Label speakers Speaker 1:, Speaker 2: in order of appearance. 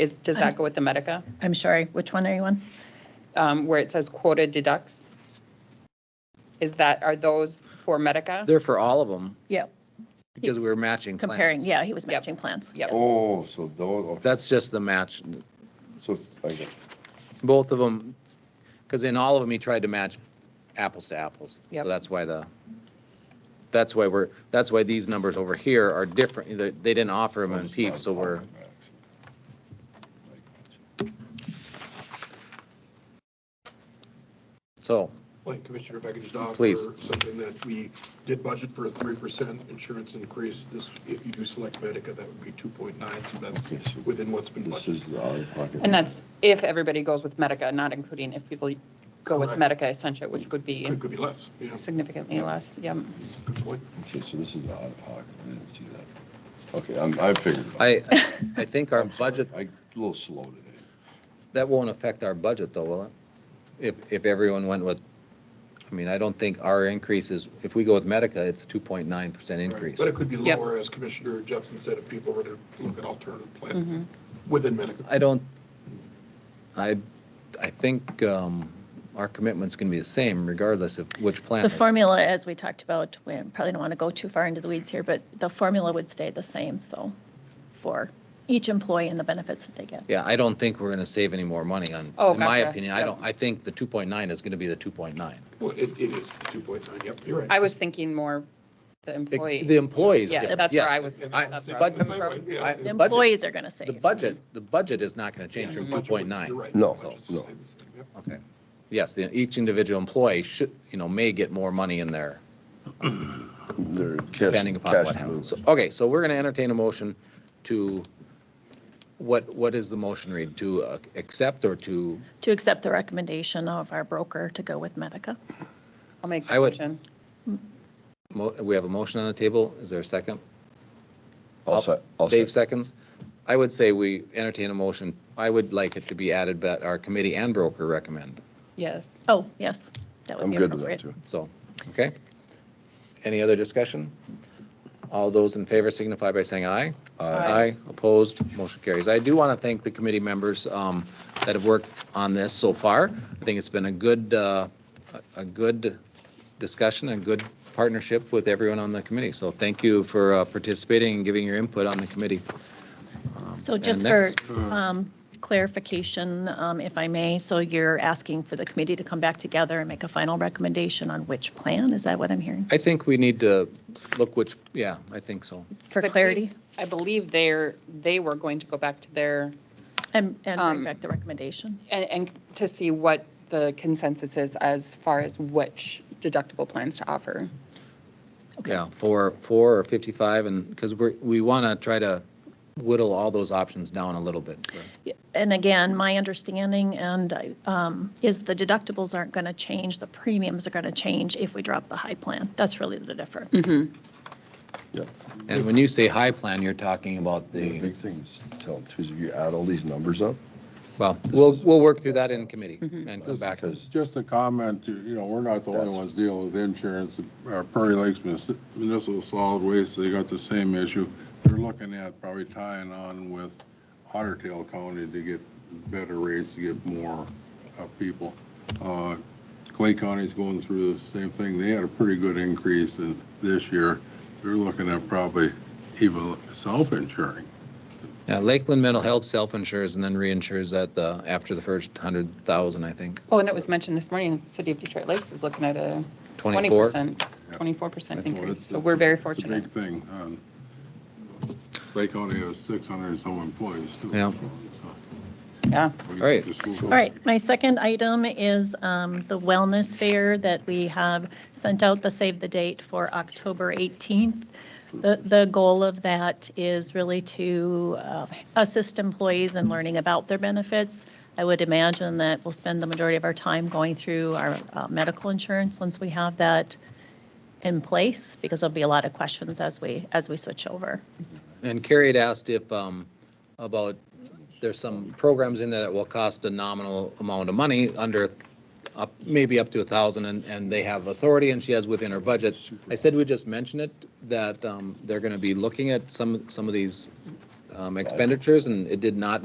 Speaker 1: Is, does that go with the Medica,
Speaker 2: I'm sorry, which one are you on?
Speaker 1: um, where it says quota deducts? Is that, are those for Medica?
Speaker 3: They're for all of them
Speaker 2: Yeah,
Speaker 3: because we were matching plans.
Speaker 2: comparing, yeah, he was
Speaker 1: Yep.
Speaker 2: matching plans.
Speaker 1: Yep.
Speaker 2: yes.
Speaker 4: Oh, so those, okay,
Speaker 3: That's just the match,
Speaker 4: so, I got it.
Speaker 3: both of them, because in all of them, he tried to match apples to apples.
Speaker 1: Yep.
Speaker 3: So that's why the, that's why we're, that's why these numbers over here are different. They they didn't offer them in PEEP, so we're, so,
Speaker 5: like Commissioner Beckett just offered.
Speaker 3: Please.
Speaker 5: Something that we did budget for a three percent insurance increase. This, if you do select Medica, that would be two point nine, so that's
Speaker 4: Yes.
Speaker 5: within what's been
Speaker 4: This
Speaker 5: budgeted.
Speaker 4: is the out of pocket.
Speaker 1: And that's if everybody goes with Medica, not including if people go with
Speaker 5: Correct.
Speaker 1: Medica Essentia, which would be
Speaker 5: Could, could be less, yeah,
Speaker 1: significantly less, yeah.
Speaker 5: good point.
Speaker 4: Okay, so this is the out of pocket, I didn't see that. Okay, I'm, I figured. it out.
Speaker 3: I, I think our
Speaker 4: I'm sorry.
Speaker 3: budget,
Speaker 4: I, a little slow today.
Speaker 3: that won't affect our budget though, will it? If, if everyone went with, I mean, I don't think our increase is, if we go with Medica, it's 2.9% increase.
Speaker 5: But it could be
Speaker 1: Yep.
Speaker 5: lower, as Commissioner Jepson said, if people were to look at alternative
Speaker 1: Mhm.
Speaker 5: plans within Medica.
Speaker 3: I don't, I, I think um, our commitment's going to be the same regardless of which
Speaker 4: Oh.
Speaker 3: plan.
Speaker 2: The formula, as we talked about, we probably don't want to go too far into the weeds here, but the formula would stay the same, so for each employee and the benefits that they get.
Speaker 3: Yeah, I don't think we're going to save any more money on,
Speaker 1: Oh,
Speaker 3: in my
Speaker 1: gotcha.
Speaker 3: opinion, I
Speaker 1: Yep.
Speaker 3: don't, I think the 2.9 is going to be the 2.9.
Speaker 5: Well, it, it is the two point nine, yep, you're right.
Speaker 1: I was thinking more the
Speaker 3: It-
Speaker 1: employee.
Speaker 3: The employees.
Speaker 1: Yeah,
Speaker 3: different,
Speaker 1: that's
Speaker 3: yes.
Speaker 1: where I was.
Speaker 5: And
Speaker 3: I-
Speaker 1: that's
Speaker 5: that's the-
Speaker 1: where I was
Speaker 3: but-
Speaker 5: that's the same way, yeah.
Speaker 3: I-
Speaker 2: The
Speaker 3: budget-
Speaker 2: employees are going to
Speaker 3: The
Speaker 2: save.
Speaker 3: budget, the budget is not going to
Speaker 5: Yeah,
Speaker 3: change from
Speaker 5: budget would- you're
Speaker 3: 2.9.
Speaker 5: right,
Speaker 4: No,
Speaker 5: budget's
Speaker 4: no.
Speaker 5: stayed the same, yep.
Speaker 3: Okay. Yes, the- each individual employee should, you know, may get more money in there
Speaker 4: They're cash-
Speaker 3: depending upon
Speaker 4: cash
Speaker 3: what happens. So-
Speaker 4: movements.
Speaker 3: Okay, so we're going to entertain a motion to, what, what is the motion read? To uh, accept or to
Speaker 2: To accept the recommendation of our broker to go with Medica.
Speaker 1: I'll make
Speaker 3: I
Speaker 1: that
Speaker 3: would-
Speaker 1: motion.
Speaker 3: Mo- We have a motion on the table. Is there a second?
Speaker 4: I'll say, I'll say.
Speaker 3: Dave seconds. I would say we entertain a motion. I would like it to be added that our committee and broker recommend.
Speaker 1: Yes.
Speaker 2: Oh, yes, that would
Speaker 4: I'm
Speaker 2: be
Speaker 4: good with that
Speaker 2: appropriate.
Speaker 4: too.
Speaker 3: So, okay? Any other discussion? All those in favor signify by saying aye. Aye. Opposed, motion carries. I do want to thank the committee members um, that have worked on this so far. I think it's been a good, uh, a a good discussion and good partnership with everyone on the committee. So thank you for uh, participating and giving your input on the committee. Um,
Speaker 2: So
Speaker 3: and
Speaker 2: just for
Speaker 3: next-
Speaker 4: Mm.
Speaker 2: um, clarification, um, if I may, so you're asking for the committee to come back together and make a final recommendation on which plan? Is that what I'm hearing?
Speaker 3: I think we need to look which, yeah, I think so.
Speaker 2: For
Speaker 1: But we-
Speaker 2: clarity?
Speaker 1: I believe they're, they were going to go back to their,
Speaker 2: And, and
Speaker 1: Um,
Speaker 2: bring back the recommendation?
Speaker 1: and, and to see what the consensus is as far as which deductible plans to offer.
Speaker 3: Yeah, four, four or 55, and, because we're, we want to try to whittle all those options down a little bit.
Speaker 2: And again, my understanding and, um, is the deductibles aren't going to change, the premiums are going to change if we drop the high plan. That's really the difference.
Speaker 4: Yeah.
Speaker 3: And when you say high plan, you're talking about
Speaker 4: The
Speaker 3: the,
Speaker 4: big thing is, tell them, too, is if you add all these numbers up.
Speaker 3: well, we'll, we'll work through that in committee and come back.
Speaker 4: Because
Speaker 6: Just a comment, you you know, we're not the only
Speaker 4: That's-
Speaker 6: ones dealing with insurance. Our Prairie Lakes Munis- Municipal Solid Waste, they got the same issue. They're looking at probably tying on with Otter Tail County to get better rates, to get more uh, people. Uh, Clay County's going through the same thing. They had a pretty good increase in this year. They're looking at probably even self-insuring.
Speaker 3: Yeah, Lakeland Mental Health self-insures and then reinsures at the, after the first 100,000, I think.
Speaker 1: Well, Oh, and it was mentioned this morning, the city of Detroit Lakes is looking at a
Speaker 3: 24?
Speaker 1: 20%,
Speaker 6: Yeah.
Speaker 1: 24%
Speaker 6: That's all.
Speaker 1: increase.
Speaker 6: It's-
Speaker 1: So
Speaker 6: it's
Speaker 1: we're
Speaker 6: a-
Speaker 1: very
Speaker 6: It's
Speaker 1: fortunate.
Speaker 6: a big thing. Um, Clay County has 600 and some employees too.
Speaker 3: Yeah.
Speaker 1: Yeah.
Speaker 6: All
Speaker 3: right.
Speaker 2: All right, my second item is um, the wellness fair that we have sent out the save the date for October 18th. The, the goal of that is really to uh, assist employees in learning about their benefits. I would imagine that we'll spend the majority of our time going through our uh, medical insurance once we have that in place, because there'll be a lot of questions as we, as we switch over.
Speaker 3: And Carrie had asked if, um, about, there's some programs in there that will cost a nominal amount of money under, up, maybe up to a thousand, and, and they have authority, and she has within her budget. I said we just mention it, that, um, they're gonna be looking at some, some of these, um, expenditures, and it did not